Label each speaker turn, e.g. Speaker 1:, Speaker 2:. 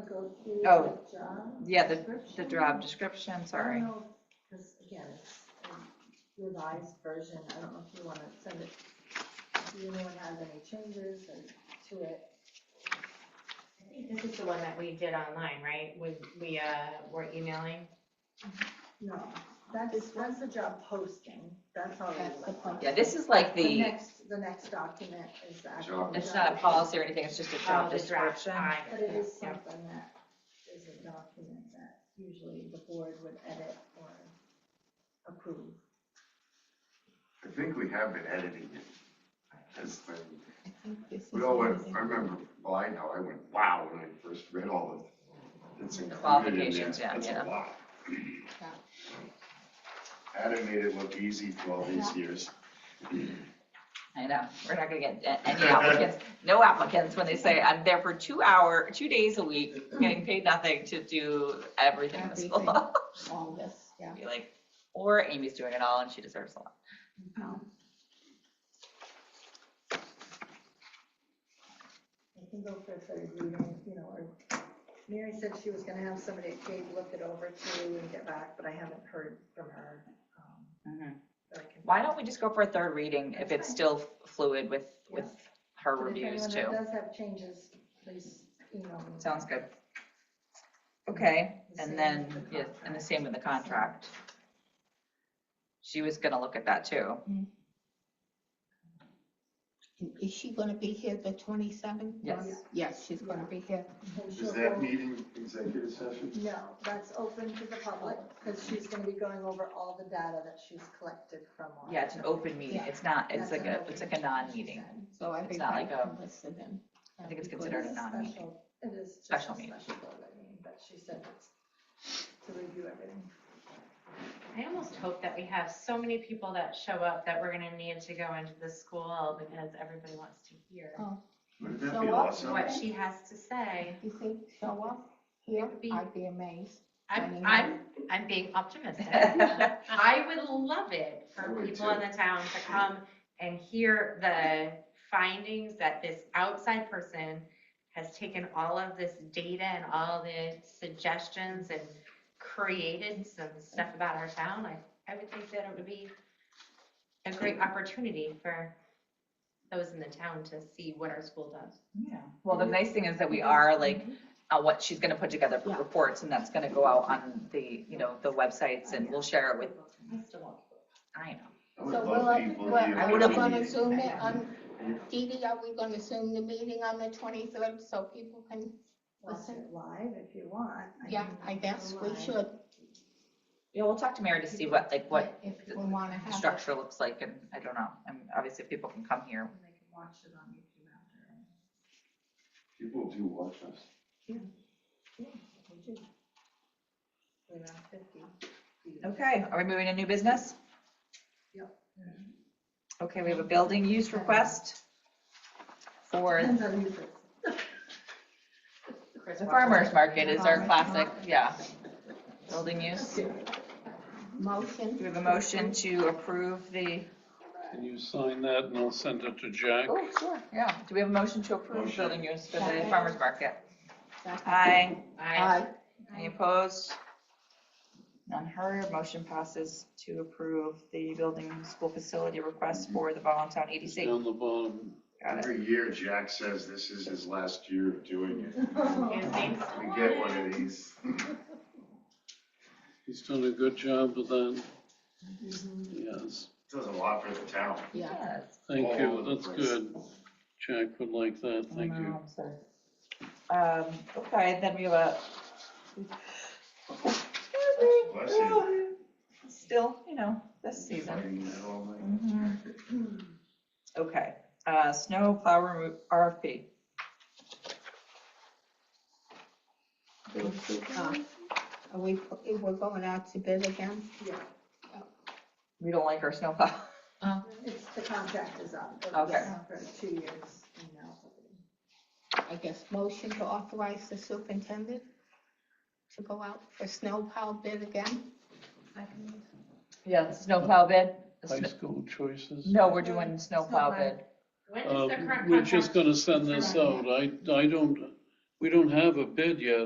Speaker 1: go through
Speaker 2: Oh,
Speaker 1: the job.
Speaker 2: yeah, the, the
Speaker 1: description?
Speaker 2: job description,
Speaker 1: I
Speaker 2: sorry.
Speaker 1: don't know, because again, it's a revised version, I don't know if you want to send it, if anyone has any changes or to it.
Speaker 3: I think this is the one that we did online, right? We, we, uh, were emailing.
Speaker 1: No, that's, that's the job posting, that's all.
Speaker 4: That's the point.
Speaker 2: Yeah, this is like
Speaker 1: The
Speaker 2: the,
Speaker 1: next, the next document is the actual.
Speaker 5: Job.
Speaker 2: it's
Speaker 1: job.
Speaker 2: not a policy or anything, it's just a
Speaker 3: Oh,
Speaker 2: job
Speaker 3: the draft.
Speaker 2: description.
Speaker 3: I-
Speaker 1: But it is
Speaker 3: yeah.
Speaker 1: something that is a document that usually the board would edit or approve.
Speaker 5: I think we have been editing it. That's when, we all went, I remember, well, I know, I went, wow, when I first read all of it's included in there.
Speaker 2: Qualifications, yeah,
Speaker 5: That's
Speaker 2: yeah.
Speaker 5: a lot. Adam made it look easy for all these years.
Speaker 2: I know, we're not gonna get a- any applicants, no applicants when they say, I'm there for two hour, two days a week, getting paid nothing to do everything in the
Speaker 4: Everything.
Speaker 2: school.
Speaker 4: All this, yeah.
Speaker 2: Be like, or Amy's doing it all and she deserves a lot.
Speaker 1: It can go for a third reading, you know, or Mary said she was gonna have somebody at Cape look it over too and get back, but I haven't heard from her. um,
Speaker 2: Mm-hmm.
Speaker 1: that I can-
Speaker 2: Why don't we just go for a third reading if it's still fluid with, with her
Speaker 1: But if
Speaker 2: reviews
Speaker 1: anyone
Speaker 2: too?
Speaker 1: that Does have changes, please email me.
Speaker 2: Sounds good. Okay,
Speaker 1: The same
Speaker 2: and
Speaker 1: with
Speaker 2: then,
Speaker 1: the
Speaker 2: yeah, and the
Speaker 1: contract.
Speaker 2: same with the contract. She was gonna look at that too.
Speaker 4: And Is she gonna be here the twenty-seventh?
Speaker 2: Yes.
Speaker 4: Yes, she's gonna be here.
Speaker 1: And she'll
Speaker 5: Is that
Speaker 1: go-
Speaker 5: meeting executive session?
Speaker 1: No, that's open to the public, because she's gonna be going over all the data that she's collected from. all-
Speaker 2: Yeah, it's an open meeting.
Speaker 4: Yeah.
Speaker 2: It's not, it's
Speaker 1: That's
Speaker 2: like
Speaker 1: an
Speaker 2: a,
Speaker 1: open
Speaker 2: it's like a
Speaker 1: meeting, she
Speaker 2: non-meeting.
Speaker 1: said.
Speaker 4: So
Speaker 2: It's not
Speaker 4: everybody
Speaker 2: like a-
Speaker 4: can listen in.
Speaker 2: I think it's
Speaker 4: That'd be
Speaker 2: considered
Speaker 4: good.
Speaker 2: a
Speaker 1: It's
Speaker 2: non-meeting.
Speaker 1: special- It is just a
Speaker 2: Special meeting.
Speaker 1: special board meeting, but she said it's to review everything.
Speaker 3: I almost hope that we have so many people that show up that we're gonna need to go into the school because everybody wants to hear
Speaker 1: Oh.
Speaker 5: Wouldn't that
Speaker 4: So
Speaker 5: be
Speaker 4: what-
Speaker 5: awesome?
Speaker 3: what she has to say.
Speaker 4: You think show up here?
Speaker 3: would be-
Speaker 4: I'd be amazed.
Speaker 3: I'm,
Speaker 4: Joining
Speaker 3: I'm, I'm being optimistic. I would love it
Speaker 5: I
Speaker 3: for
Speaker 5: would
Speaker 3: people in
Speaker 5: too.
Speaker 3: the town to come and hear the findings that this outside person has taken all of this data and all the suggestions and created some stuff about our town. I, I would think that it would be a great opportunity for those in the town to see what our school does.
Speaker 2: Yeah. Well, the nice thing is that we are like, uh, what she's gonna put together for
Speaker 4: Yeah.
Speaker 2: reports and that's gonna go out on the, you know, the websites and we'll share it with,
Speaker 3: I still want people.
Speaker 2: I know.
Speaker 5: I
Speaker 4: So
Speaker 5: would
Speaker 4: will
Speaker 5: love
Speaker 4: I-
Speaker 5: people
Speaker 4: well,
Speaker 5: here.
Speaker 2: I
Speaker 4: Are
Speaker 2: would
Speaker 4: we
Speaker 2: have
Speaker 4: gonna
Speaker 5: Meeting.
Speaker 4: zoom it on, Dee Dee, are we gonna zoom the meeting on the twenty-third so people can,
Speaker 1: Watch
Speaker 4: Listen.
Speaker 1: it live if you want. I
Speaker 4: yeah,
Speaker 1: mean,
Speaker 4: I guess we
Speaker 1: live.
Speaker 4: should.
Speaker 2: Yeah, we'll talk to Mary to see what, like, what
Speaker 4: If we wanna
Speaker 2: the
Speaker 4: have. it.
Speaker 2: structure looks like and I don't know. And obviously if people can come here.
Speaker 1: And they can watch it on YouTube after.
Speaker 5: People do watch us.
Speaker 1: We do. We're around fifty.
Speaker 2: Okay, are we moving to new business?
Speaker 1: Yep.
Speaker 2: Okay, we have a building use request for
Speaker 1: Depends on who's it.
Speaker 3: Chris
Speaker 2: the
Speaker 3: Walker.
Speaker 2: farmer's market is our classic, yeah. Building use. Do
Speaker 4: Motion.
Speaker 2: we have a motion to approve the,
Speaker 6: Can you sign that and I'll send it to Jack?
Speaker 2: oh, sure, yeah. Do we have a motion to approve
Speaker 5: Motion.
Speaker 2: building use for the farmer's market?
Speaker 4: Second.
Speaker 2: Aye.
Speaker 3: I,
Speaker 4: Aye.
Speaker 2: Any opposed? None heard. Motion passes to approve the building school facility request for the Volantown EDC.
Speaker 6: Down the bottom.
Speaker 2: Got it.
Speaker 5: Every year Jack says this is his last year of doing it.
Speaker 3: you think so?
Speaker 5: We get one of these.
Speaker 6: He's done a good job with that.
Speaker 1: Mhm.
Speaker 6: Yes.
Speaker 5: Does a lot for the town.
Speaker 4: Yeah.
Speaker 2: Yes.
Speaker 6: Thank
Speaker 5: All
Speaker 6: you.
Speaker 5: over the
Speaker 6: That's
Speaker 5: place.
Speaker 6: good. Jack would like that. Thank you.
Speaker 2: Um, so, Um, okay, then we have a.
Speaker 5: Bless you.
Speaker 2: Still, you know, this season.
Speaker 5: Fighting that all night.
Speaker 2: Mhm. Okay, uh, snow plow remo- RFP.
Speaker 4: Uh, Are we, we're going out to bid again?
Speaker 1: Yeah,
Speaker 2: We don't like our snow plow. Uh,
Speaker 1: it's, the contract is up. It
Speaker 2: Okay.
Speaker 1: was For two years and now.
Speaker 4: I guess motion to authorize the superintendent to go out for snow plow bid again?
Speaker 2: Yeah, the snow plow bid. The
Speaker 6: High
Speaker 2: sn-
Speaker 6: school choices.
Speaker 2: No, we're doing snow
Speaker 1: Snow
Speaker 2: plow
Speaker 1: plow.
Speaker 2: bid.
Speaker 3: when is
Speaker 6: Uh,
Speaker 3: the current
Speaker 6: We're just
Speaker 3: contract?
Speaker 6: gonna send this out. I, I don't, we don't have a bid yet.